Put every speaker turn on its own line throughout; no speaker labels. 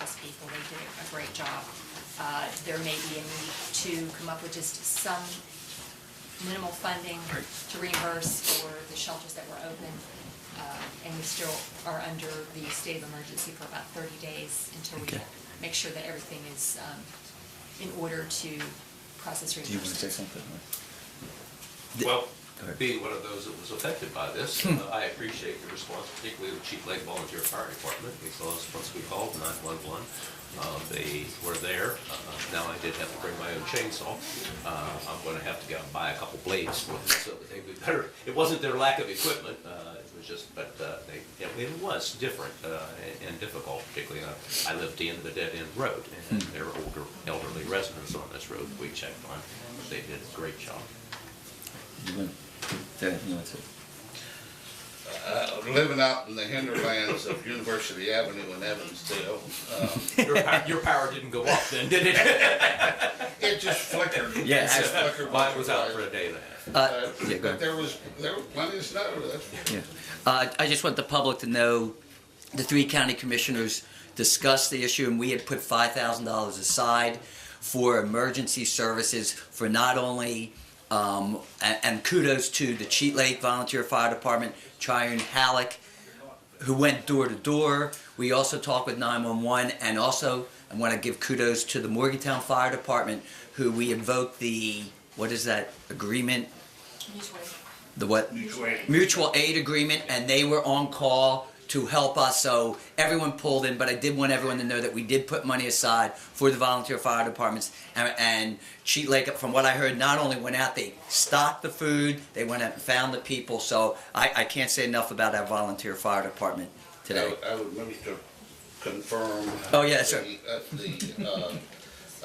those people, they did a great job. Uh, There may be a need to come up with just some minimal funding
Right.
to reimburse for the shelters that were open. Uh, And we still are under the state of emergency for about 30 days until we
Okay.
make sure that everything is um, in order to process reimbursement.
Do you want to say something? The-
Well,
Go ahead. Hmm.
being one of those that was affected by this, uh, I appreciate your response, particularly the Chief Lake Volunteer Fire Department, because once we called 911, uh, they were there. Uh, Now, I did have to bring my own chainsaw. Uh, I'm going to have to go and buy a couple blades for them, so that they would better, it wasn't their lack of equipment, uh, it was just, but uh, they, it it was different uh, and- and difficult, particularly, uh, I lived at the end of the dead-end road, and
Hmm.
there were older elderly residents on this road we checked on. They did a great job.
You want- Dad, you want to?
Uh, living out in the hinterlands of University Avenue in Evansdale, uh,
Your power, your power didn't go up then, did it?
it just flickered. It
Yeah,
just flickered
Mine was out
once
for
or
a
twice.
day and a half.
Uh,
Yeah, go
But
ahead.
there was, there was plenty of snow, that's for
Yeah. Uh, I just want the public to know, the three county commissioners discussed the issue, and we had put five thousand dollars aside for emergency services for not only, um, and, and kudos to the Cheat Lake Volunteer Fire Department, Tryon Halleck, who went door to door. We also talked with 911, and also I want to give kudos to the Morgantown Fire Department, who we invoked the what is that agreement? The what?
Mutual aid.
Mutual aid agreement, and they were on call to help us. So everyone pulled in, but I did want everyone to know that we did put money aside for the volunteer fire departments. And, and Cheat Lake, from what I heard, not only went out, they stocked the food, they went out and found the people. So I, I can't say enough about our volunteer fire department today.
I I would move to confirm.
Oh, yeah, sure.
the- uh, The,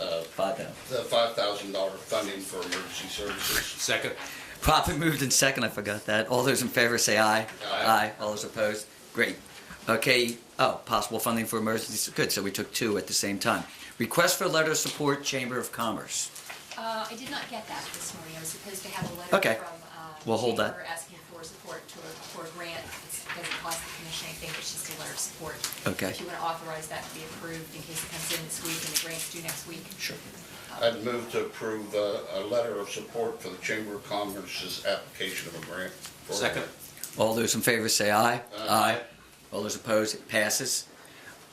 uh,
Five down.
the five thousand dollar funding for emergency services.
Second,
Profit moved in second, I forgot that. All those in favor say aye.
Aye.
All those opposed? Great. Okay, oh, possible funding for emergencies, good, so we took two at the same time. Request for letter of support, Chamber of Commerce.
Uh, I did not get that this morning. I was supposed to have a letter
Okay.
from, uh,
We'll hold that.
Chamber asking for support to, a- for a grant. It's- It doesn't cost the commission anything, it's just a letter of support.
Okay.
If you want to authorize that to be approved in case it comes in this week and the grant's due next week.
Sure.
I'd move to approve uh, a letter of support for the Chamber of Commerce's application of a grant. for-
second,
All those in favor say aye.
Aye.
All those opposed, it passes.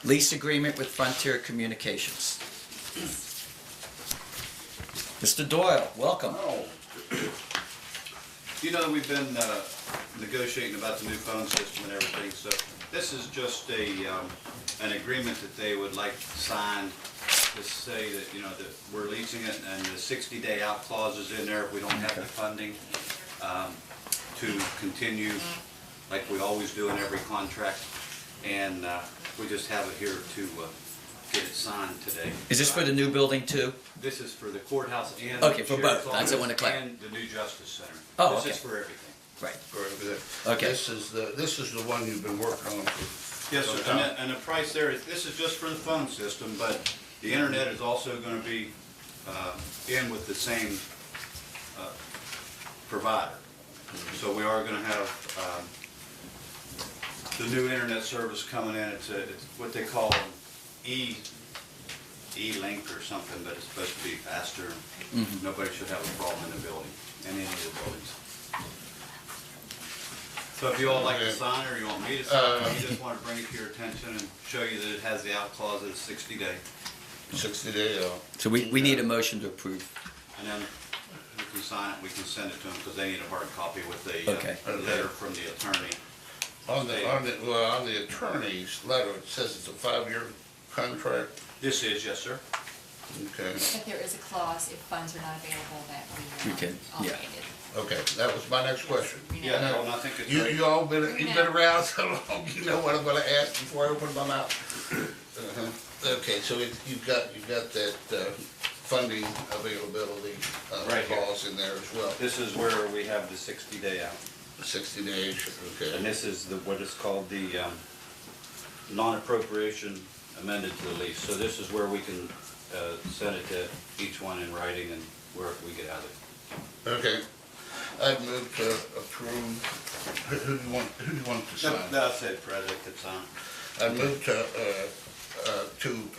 Lease agreement with Frontier Communications. Mr. Doyle, welcome.
You know, we've been uh, negotiating about the new phone system and everything, so this is just a, um, an agreement that they would like signed to say that, you know, that we're leasing it and the 60-day out clause is in there if we don't have the funding um, to continue like we always do in every contract. And uh, we just have it here to uh, get it signed today.
Is this for the new building too?
This is for the courthouse and.
Okay, for both.
sheriff's
That's the one to clar-
office And the new justice center.
Oh, okay.
This is for everything.
Right.
for the-
Okay.
This is the, this is the one you've been working on for.
Yes,
some
sir,
time.
and the, and the price there is, this is just for the phone system, but the internet is also gonna be, uh, in with the same, uh, provider. So we are gonna have, um, the new internet service coming in, it's, a- it's what they call E, E-Link or something, but it's supposed to be faster. Nobody should have a problem in the building, in any of the buildings. So if you all like to
Okay.
sign, or you want me to sign, or you just wanna bring it to your attention and show you that it has the out clause of sixty day,
Sixty day, uh,
So we, we need a motion to approve.
and then we can sign it, we can send it to them, because they need a hard copy with the,
Okay.
uh, letter from the attorney.
on the, on the, well, on the attorney's letter, it says it's a five-year contract.
This is, yes, sir?
Okay,
But there is a clause, if funds are not available, that we. uh,
We can, yeah.
okay, that was my next question.
Yeah, no, and I think it's.
You,
right.
you all been, you've been around so long, you know what I'm gonna ask before I open my mouth. Uh-huh. Okay, so it- you've got, you've got that uh, funding availability uh,
Right here.
clause in there as well,
This is where we have the sixty day out.
sixty days,
And
okay.
this is the, what is called the um, non-appropriation amended to the lease. So this is where we can uh, send it to each one in writing and where we get out of it.
Okay, I'd move to approve, who, who do you want, who do you want to sign?
That's it, President, it's on.
I'd move to, uh, uh, to